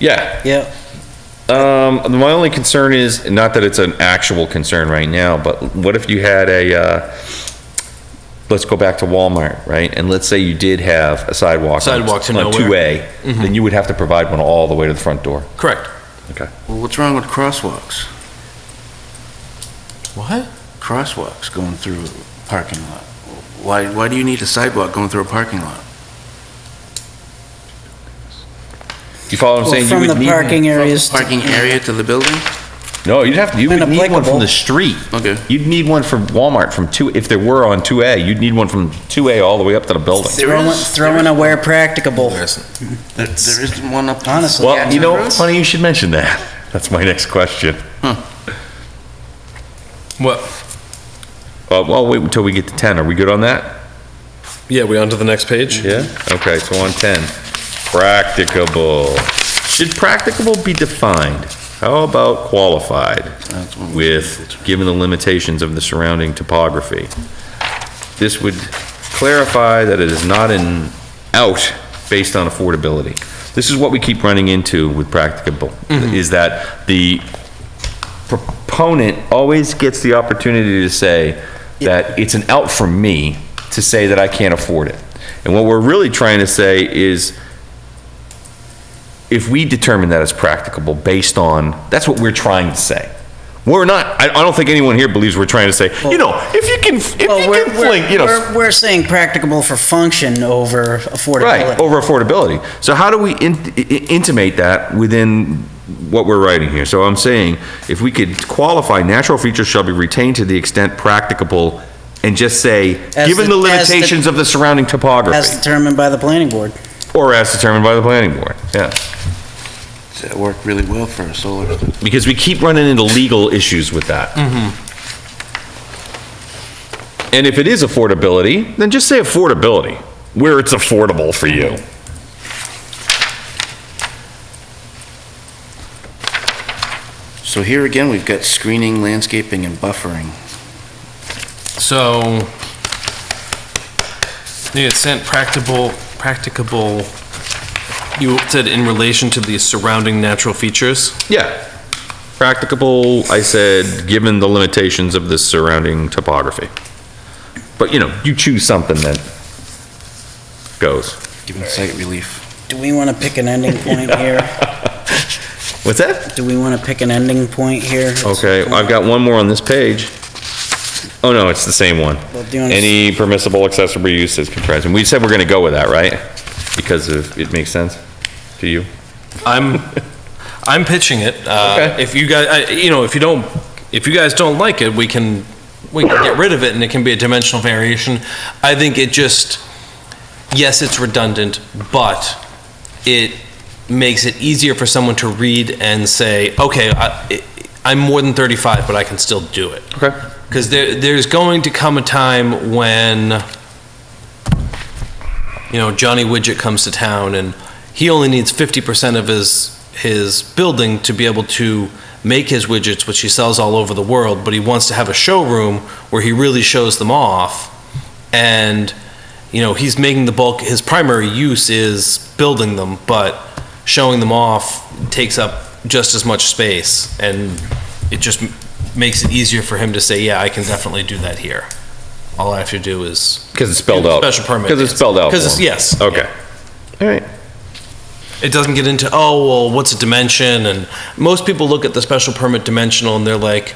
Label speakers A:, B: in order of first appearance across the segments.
A: Yeah.
B: Yeah.
A: Um, my only concern is, not that it's an actual concern right now, but what if you had a, uh, let's go back to Walmart, right? And let's say you did have a sidewalk. on-
C: Sidewalk to
A: On
C: nowhere.
A: two A, then you would have to provide one all the way to the front door.
C: Correct.
A: Okay.
B: Well, what's wrong with crosswalks?
C: What?
B: Crosswalks going through a parking lot. Why, why do you need a sidewalk going through a parking lot?
A: You follow what I'm
D: Well,
A: saying? You
D: Oh, From
A: would
D: the
A: need-
D: parking areas.
B: Parking area to the building?
A: No, you'd have, to. you would need one from
D: Inapplicable.
A: the street.
B: Okay.
A: You'd need one from Walmart from two, if there were on two A, you'd need one from two A all the way up to the building.
D: Throwing, throwing a where practicable,
B: There there isn't one up.
D: Honestly.
A: Well, you know, funny you should mention that. That's my next question.
C: What?
A: Uh, well, wait until we get to ten. Are we good on that?
C: Yeah, we on to the next page?
A: Yeah. Okay, so on ten, practicable. Should practicable be defined? How about qualified
B: That's what we-
A: with, given the limitations of the surrounding topography? This would clarify that it is not an out based on affordability. This is what we keep running into with practicable,
B: Mm-hmm.
A: is that the proponent always gets the opportunity to say that it's an out for me to say that I can't afford it. And what we're really trying to say is, if we determine that it's practicable based on, that's what we're trying to say. We're not, I, I don't think anyone here believes we're trying to say, you know, if you can, if you
D: Well, Oh, we're,
A: can fling,
D: we're,
A: you know.
D: we're, we're saying practicable for function over
A: Right,
D: affordability.
A: over affordability. So how do we in- i- intimate that within what we're writing here? So I'm saying, if we could qualify, natural features shall be retained to the extent practicable, and just say,
D: As
A: given the
D: the- as the-
A: limitations of the surrounding
D: As
A: topography,
D: determined by the planning board.
A: or as determined by the planning board, yeah.
B: That worked really well for a solar.
A: Because we keep running into legal issues with that.
D: Mm-hmm.
A: And if it is affordability, then just say affordability, where it's affordable for you.
B: So here again, we've got screening, landscaping, and buffering.
C: So, you had sent practicable, practicable, you said in relation to the surrounding natural features?
A: Yeah. Practicable, I said, given the limitations of the surrounding topography. But, you know, you choose something that goes.
B: Given site relief.
D: Do we want to pick an ending point here?
A: What's that?
D: Do we want to pick an ending point here?
A: Okay, I've got one more on this page. Oh, no, it's the same one.
D: Well, do you wanna-
A: Any permissible accessory uses comprised, and we said we're gonna go with that, right? Because of, it makes sense to you?
C: I'm, I'm pitching it. Uh,
A: Okay.
C: If you guys, I- you know, if you don't, if you guys don't like it, we can, we can get rid of it and it can be a dimensional variation. I think it just, yes, it's redundant, but it makes it easier for someone to read and say, okay, I, I'm more than 35, but I can still do it.
A: Okay.
C: Because there, there's going to come a time when, you know, Johnny Widget comes to town and he only needs 50% of his, his building to be able to make his widgets, which he sells all over the world, but he wants to have a showroom where he really shows them off. And, you know, he's making the bulk, his primary use is building them, but showing them off takes up just as much space. And it just m- makes it easier for him to say, yeah, I can definitely do that here. All I have to do is,
A: Because it's spelled out.
C: Special permit.
A: Because it's spelled out.
C: Because
A: for
C: it's-
A: them.
C: yes.
A: Okay. All right.
C: it doesn't get into, oh, well, what's a dimension? And most people look at the special permit dimensional and they're like,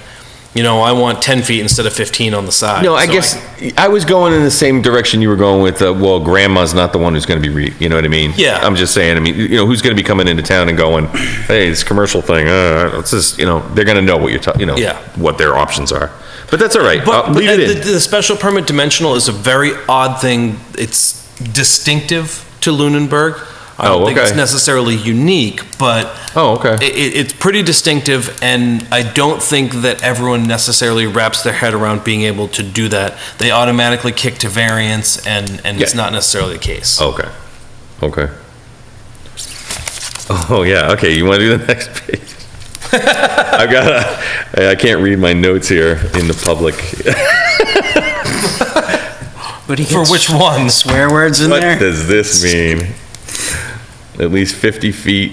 C: you know, I want 10 feet instead of 15 on the side.
A: No, I
C: So
A: guess I was going in the same direction you were going with, uh, well, grandma's not the one who's going to be, re- you know what I mean?
C: Yeah.
A: I'm just saying, I mean, you know, who's going to be coming into town and going, hey, this commercial thing, uh, it's just, you know, they're going to know what you're talking, you know,
C: Yeah.
A: what their options are. But that's all right.
C: But,
A: I'll
C: but
A: Uh, leave it
C: the,
A: in.
C: the special permit dimensional is a very odd thing. It's distinctive to Lunenburg. I don't
A: Oh,
C: think it's
A: okay.
C: necessarily unique, but
A: Oh, okay.
C: it, it, it's pretty distinctive, and I don't think that everyone necessarily wraps their head around being able to do that. They automatically kick to variance, and, and it's
A: Yeah. Oh,
C: not necessarily the case.
A: Okay. Okay. Oh, yeah. Okay. You want to do the next page? I've got a, I can't read my notes here in the public.
D: But he
C: For
D: gets
C: which ones?
D: Swear words in
A: What
D: there?
A: does this mean? At least 50 feet